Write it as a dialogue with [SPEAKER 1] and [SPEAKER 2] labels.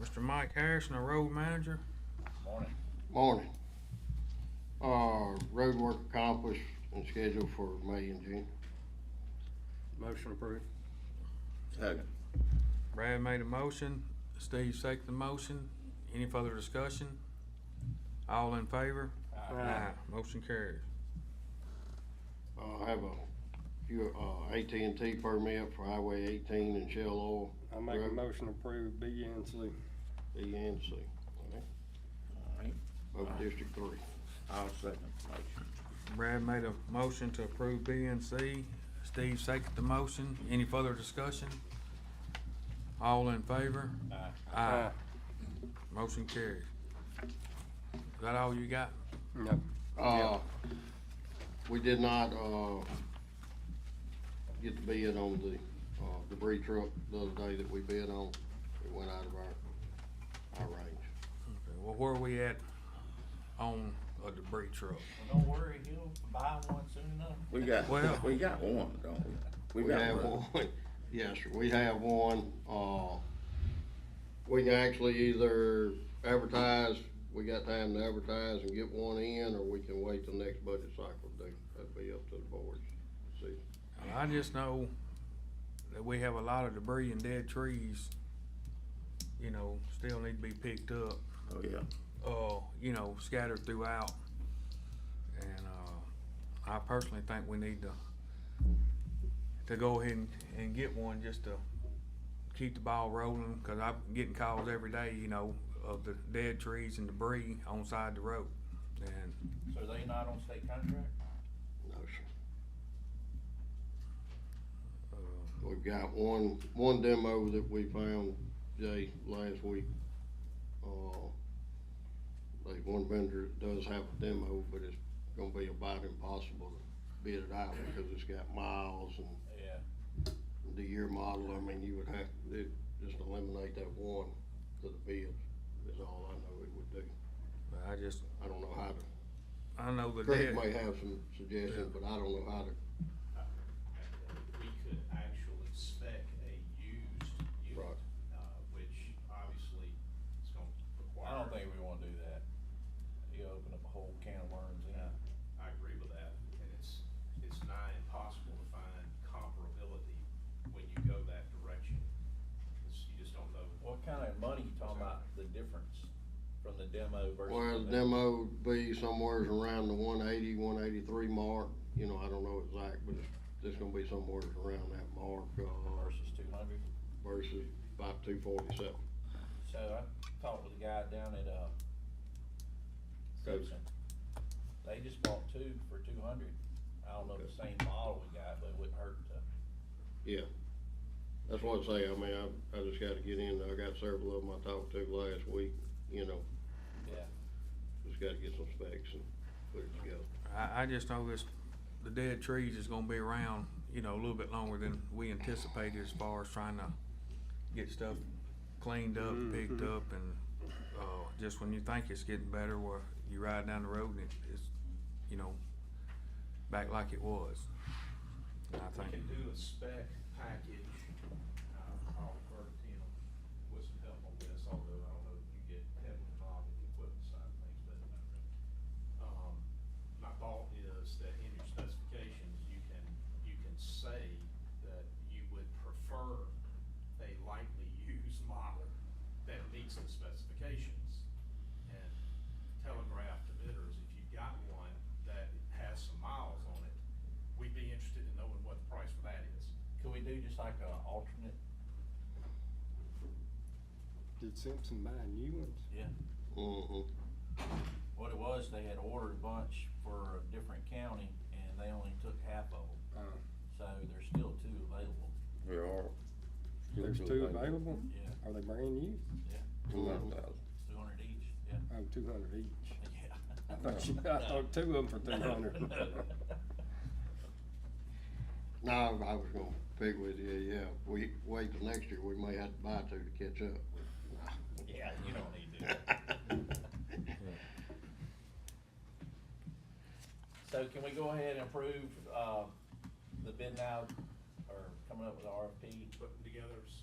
[SPEAKER 1] Mr. Mike Harrison, our road manager.
[SPEAKER 2] Morning.
[SPEAKER 3] Morning. Uh, road work accomplished and scheduled for May and June.
[SPEAKER 4] Motion approved.
[SPEAKER 5] Second.
[SPEAKER 1] Brad made a motion, Steve seconded the motion. Any further discussion? All in favor? Aye. Motion carries.
[SPEAKER 3] Uh, I have a few, uh, AT&T permit for Highway eighteen and Shell Oil,
[SPEAKER 4] I make
[SPEAKER 3] Right.
[SPEAKER 4] a motion to approve B and C.
[SPEAKER 3] E and C,
[SPEAKER 5] Alright,
[SPEAKER 3] over District Three.
[SPEAKER 5] I'll second the motion.
[SPEAKER 1] Brad made a motion to approve B and C. Steve seconded the motion. Any further discussion? All in favor? Aye. Motion carries. Is that all you got?
[SPEAKER 4] No.
[SPEAKER 3] Uh, we did not, uh, get the bid on the, uh, debris truck the other day that we bid on. It went out of our, our range.
[SPEAKER 1] Okay, Well, where are we at on a debris truck?
[SPEAKER 2] Well, don't worry, he'll buy one soon enough.
[SPEAKER 5] We got,
[SPEAKER 1] Well-
[SPEAKER 5] we got one, don't we?
[SPEAKER 3] We have
[SPEAKER 5] one.
[SPEAKER 3] one, yes, sir, we have one, uh, we can actually either advertise, we got time to advertise and get one in, or we can wait till next budget cycle to do, that'd be up to the board. See,
[SPEAKER 1] Well, I just know that we have a lot of debris and dead trees, you know, still need to be picked up,
[SPEAKER 5] Oh, yeah.
[SPEAKER 1] uh, you know, scattered throughout. And, uh, I personally think we need to, to go ahead and, and get one just to keep the ball rolling, cause I'm getting calls every day, you know, of the dead trees and debris on side the road. And
[SPEAKER 2] So they not on state contract?
[SPEAKER 3] no, sir, we've got one, one demo that we found, Jay, last week. Uh, like one vendor does have a demo, but it's gonna be about impossible to bid it out, because it's got miles and
[SPEAKER 2] Yeah.
[SPEAKER 3] the year model, I mean, you would have, it, just eliminate that one to the bids, is all I know it would do.
[SPEAKER 1] I just,
[SPEAKER 3] I don't know how to,
[SPEAKER 1] I know the dead.
[SPEAKER 3] Craig may have some suggestions, but I don't know how to,
[SPEAKER 6] we could actually spec a used unit,
[SPEAKER 3] Right.
[SPEAKER 6] uh, which obviously is gonna require.
[SPEAKER 2] I don't think we wanna do that. You open up a whole can of worms, yeah.
[SPEAKER 6] I agree with that, and it's, it's nigh impossible to find comparability when you go that direction. It's, you just don't know.
[SPEAKER 2] What kind of money you talking about, the difference from the demo versus?
[SPEAKER 3] well, the demo would be somewhere around the 180, 183 mark, you know, I don't know exact, but it's, it's gonna be somewhere around that mark, uh,
[SPEAKER 2] Versus two hundred?
[SPEAKER 3] versus about two forty-seven.
[SPEAKER 2] So I talked with the guy down at, uh, Gosen. They just bought two for two hundred. I don't know if the same model we got, but it wouldn't hurt to.
[SPEAKER 3] Yeah, that's what I say, I mean, I, I just gotta get in, there. I got several of them I talked to last week, you know,
[SPEAKER 2] Yeah.
[SPEAKER 3] just gotta get some specs and put it together.
[SPEAKER 1] I, I just know this, the dead trees is gonna be around, you know, a little bit longer than we anticipated as far as trying to get stuff cleaned up, picked up, and, uh, just when you think it's getting better, where you ride down the road and it- it's, you know, back like it was. And I
[SPEAKER 6] We
[SPEAKER 1] think,
[SPEAKER 6] can do a spec package, uh, I'll refer to Tim with some help on this, although I don't know if you get heavily involved in the equipment side of things, but. Um, my thought is that in your specifications, you can, you can say that you would prefer a lightly used model that meets the specifications. And telegraph to bidders, if you've got one that has some miles on it, we'd be interested in knowing what the price for that is.
[SPEAKER 2] Could we do just like a alternate?
[SPEAKER 4] Did Simpson buy new ones?
[SPEAKER 2] Yeah.
[SPEAKER 3] Mm-hmm.
[SPEAKER 2] What it was, they had ordered a bunch for a different county and they only took half of them,
[SPEAKER 4] Uh,
[SPEAKER 2] so there's still two available.
[SPEAKER 5] We are.
[SPEAKER 4] There's two available?
[SPEAKER 2] Yeah,
[SPEAKER 4] Are they brand new?
[SPEAKER 3] Mm-hmm.
[SPEAKER 5] Two hundred thousand.
[SPEAKER 2] two hundred each, yeah,
[SPEAKER 4] Oh, two hundred each. I
[SPEAKER 2] yeah.
[SPEAKER 4] thought you, I thought two of them for two hundred.
[SPEAKER 3] No, I was gonna pick with you, yeah, we wait till next year, we may have to buy two to catch
[SPEAKER 2] Yeah, you don't need to.
[SPEAKER 3] up.
[SPEAKER 2] So can we go ahead and approve, uh, the bid now, or coming up with the RFP?
[SPEAKER 6] Putting together